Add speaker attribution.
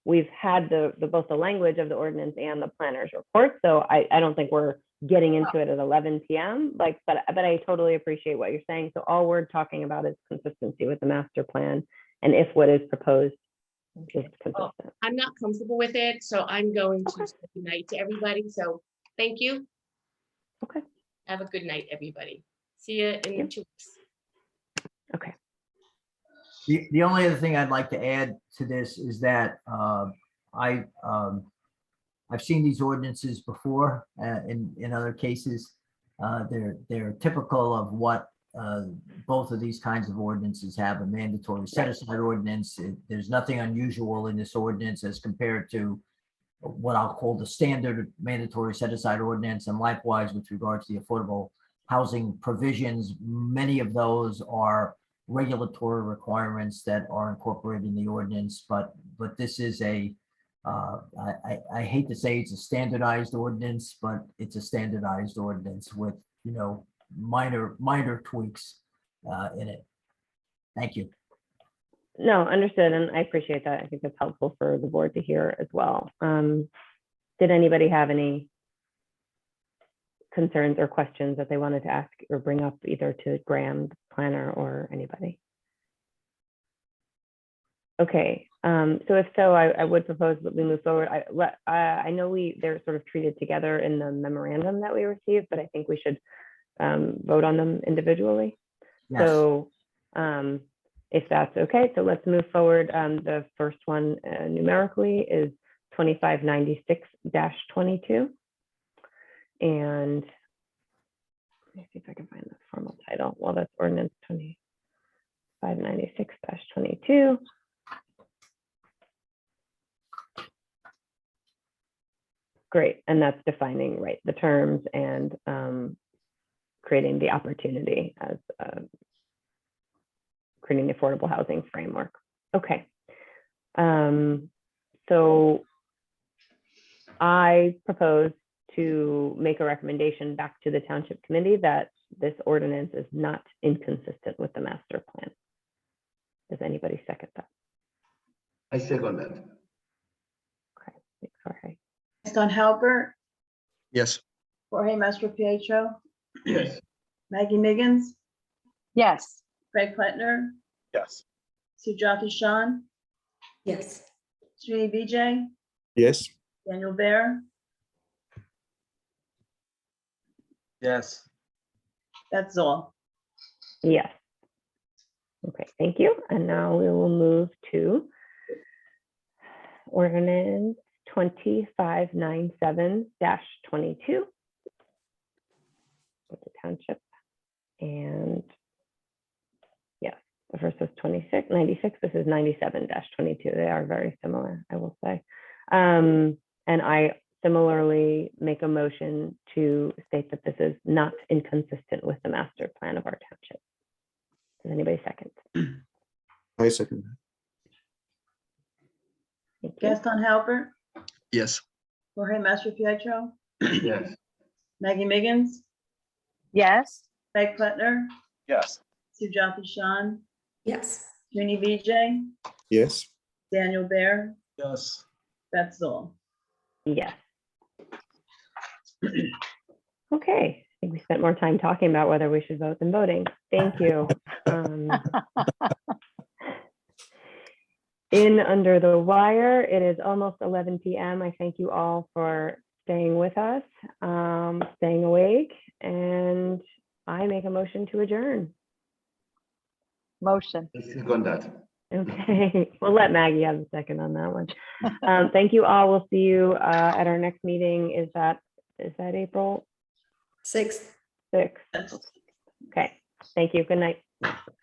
Speaker 1: we've had the, the, both the language of the ordinance and the planner's report. So I, I don't think we're getting into it at eleven PM, like, but, but I totally appreciate what you're saying. So all we're talking about is consistency with the master plan and if what is proposed is consistent.
Speaker 2: I'm not comfortable with it, so I'm going to
Speaker 1: Okay.
Speaker 2: say good night to everybody. So thank you.
Speaker 1: Okay.
Speaker 2: Have a good night, everybody. See you in
Speaker 1: Yep.
Speaker 2: two weeks.
Speaker 3: The, the only other thing I'd like to add to this is that uh, I, um, I've seen these ordinances before uh, in, in other cases. Uh, They're, they're typical of what uh, both of these kinds of ordinances have, a mandatory set aside ordinance. It- There's nothing unusual in this ordinance as compared to what I'll call the standard mandatory set aside ordinance and likewise with regard to the affordable housing provisions. Many of those are regulatory requirements that are incorporated in the ordinance, but, but this is a, uh, I, I, I hate to say it's a standardized ordinance, but it's a standardized ordinance with, you know, minor, minor tweaks, uh, in it. Thank you.
Speaker 1: No, understood, and I appreciate that. I think that's helpful for the board to hear as well. Um, did anybody have any concerns or questions that they wanted to ask or bring up either to Graham, the planner, or anybody? Okay, um, so if so, I, I would propose that we move forward. I, let, I, I know we, they're sort of treated together in the memorandum that we received, but I think we should um, vote on them individually.
Speaker 3: Yes,
Speaker 1: So um, if that's okay, so let's move forward. Um, The first one uh, numerically is 2596-22. And let me see if I can find the formal title. Well, that's ordinance 2596-22. Great, and that's defining, right, the terms and um, creating the opportunity as a creating the affordable housing framework. Okay. Um, so I propose to make a recommendation back to the township committee that this ordinance is not inconsistent with the master plan. Does anybody second that?
Speaker 4: I second that.
Speaker 1: Thanks, Jorge.
Speaker 5: Gaston Halbert,
Speaker 6: Yes.
Speaker 5: Jorge Mastro Pietro,
Speaker 4: Yes,
Speaker 5: Maggie Miggins,
Speaker 7: Yes.
Speaker 5: Craig Plattner,
Speaker 6: Yes.
Speaker 5: Sujata Shan,
Speaker 8: yes.
Speaker 5: Srini Vijay,
Speaker 6: Yes.
Speaker 5: Daniel Bear.
Speaker 9: yes.
Speaker 5: That's all.
Speaker 1: Yes. Okay, thank you. And now we will move to ordinance twenty-five nine seven twenty-two. With the township and yes, the first was 26, 96. this is ninety-seven twenty-two. They are very similar, I will say. Um, and I similarly make a motion to state that this is not inconsistent with the master plan of our township. Does anybody second?
Speaker 6: I second. that.
Speaker 1: Thank you.
Speaker 5: Gaston Halbert,
Speaker 6: Yes.
Speaker 5: Jorge Mastro Pietro,
Speaker 4: yes,
Speaker 5: Maggie Miggins,
Speaker 7: Yes.
Speaker 5: Craig Plattner,
Speaker 9: Yes.
Speaker 5: Sujata Shan,
Speaker 8: Yes.
Speaker 5: Srini Vijay,
Speaker 6: Yes.
Speaker 5: Daniel Bear.
Speaker 9: Yes.
Speaker 5: That's all.
Speaker 1: Yes. Okay, I think we spent more time talking about whether we should vote than voting. Thank you. Um, In Under the Wire, it is almost 11 PM. I thank you all for staying with us, um, staying awake, and I make a motion to adjourn.
Speaker 7: Motion.
Speaker 4: I second that.
Speaker 1: Okay, we'll let Maggie have a second on that one. Um, Thank you all. We'll see you uh, at our next meeting. Is that, is that April
Speaker 8: Six.
Speaker 1: 6th?
Speaker 5: That's
Speaker 1: Okay, thank you. Good night.